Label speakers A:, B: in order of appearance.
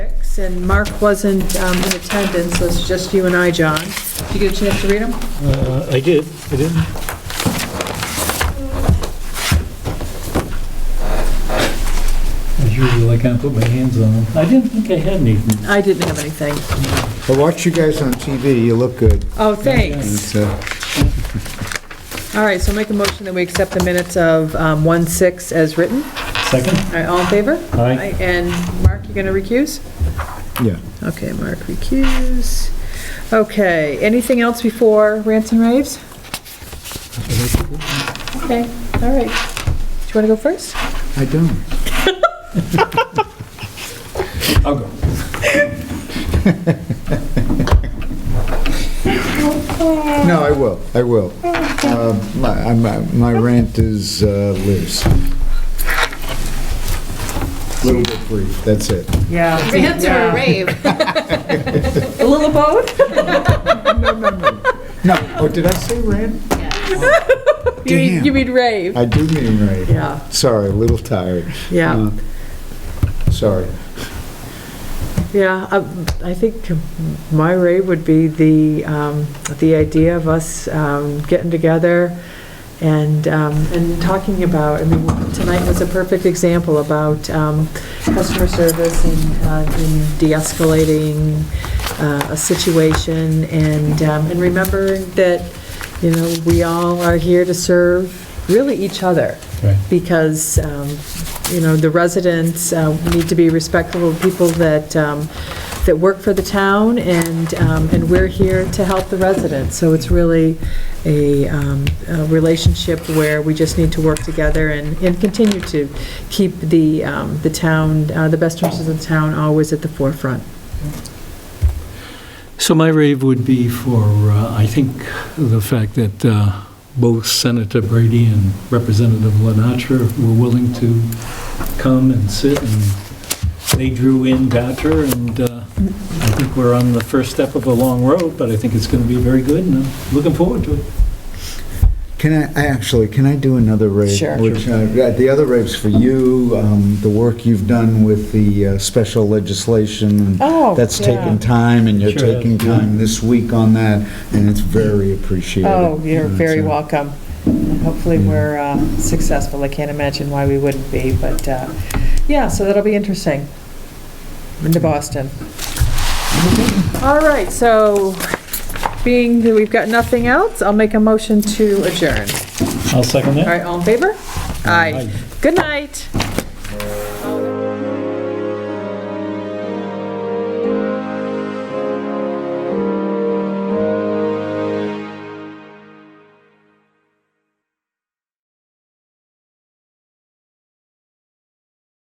A: and Mark wasn't um, in attendance, so it's just you and I, John. Did you get a chance to read them?
B: Uh, I did, I did. As usual, I can't put my hands on them. I didn't think I had anything.
A: I didn't have anything.
C: I watched you guys on TV, you look good.
A: Oh, thanks.
C: It's, uh,
A: All right, so make a motion that we accept the minutes of um, 1/6 as written. All
B: Second?
A: right, all in favor?
B: Aye.
A: And Mark, you going to recuse?
C: Yeah.
A: Okay, Mark recuse. Okay, anything else before rants and raves? Okay, all right. Do you want to go first?
C: I don't.
B: I'll go.
C: No, I will, I will. Uh, My I'm- I'm- my rant is uh, Liz. Little bit brief, that's it.
A: Yeah.
D: Rant or a rave?
A: A little both?
C: No, oh, did I say rant?
A: You mean,
C: Damn.
A: you mean rave?
C: I do mean rant.
A: Yeah.
C: Sorry, a little tired.
A: Yeah,
C: Uh, Sorry.
A: yeah. I- I think my rave would be the, um, the idea of us um, getting together and, um, and talking about, I mean, tonight was a perfect example about um, customer service and uh, and de-escalating uh, a situation and, um, and remembering that, you know, we all are here to serve really each other.
B: Right.
A: because, um, you know, the residents uh, need to be respectful of people that, um, that work for the town, and, um, and we're here to help the residents. So it's really a um, a relationship where we just need to work together and, and continue to keep the, um, the town, uh, the best interests of the town always at the forefront.
B: So my rave would be for, uh, I think, the fact that uh, both Senator Brady and Representative Lenatra were willing to come and sit, and they drew in Gatra, and uh, I think we're on the first step of a long road, but I think it's going to be very good, and I'm looking forward to it.
C: Can I, I actually, can I do another rave?
A: Sure.
C: Which, uh, The other rave's for you, um, the work you've done with the uh, special legislation.
A: Oh,
C: That's
A: yeah.
C: taken time, and you're
B: Sure has,
C: taking
B: yeah.
C: time this week on that, and it's very appreciated. That's, uh,
A: Oh, welcome. Hopefully, we're uh, successful. I can't imagine why we wouldn't be, but, uh, yeah, so that'll be interesting. Into Boston. All right, so being that we've got nothing else, I'll make a motion to adjourn.
B: I'll second
A: All
B: that.
A: right, all in favor? Aye. Good night.